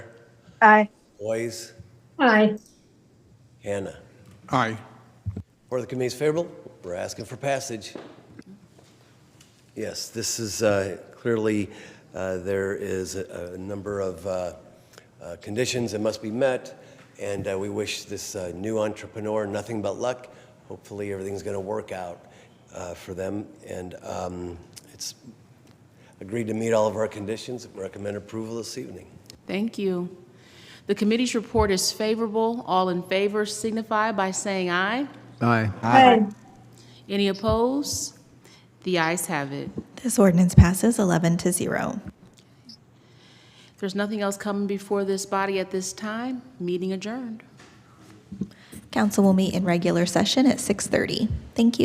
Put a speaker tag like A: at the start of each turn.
A: Aye.
B: Boys,
C: Aye.
B: Hannah.
D: Aye.
B: Or the committee's favorable? We're asking for passage. Yes, this is uh, clearly, uh, there is a a number of uh, uh, conditions that must be met, and uh, we wish this uh, new entrepreneur nothing but luck. Hopefully, everything's going to work out uh, for them, and um, it's agreed to meet all of our conditions. Recommend approval this evening.
E: Thank you. The committee's report is favorable. All in favor signify by saying aye.
D: Aye.
A: Aye.
E: Any opposed? The ayes have it.
F: This ordinance passes 11 to 0.
E: If there's nothing else coming before this body at this time, meeting adjourned.
F: Council will meet in regular session at 6:30. Thank you.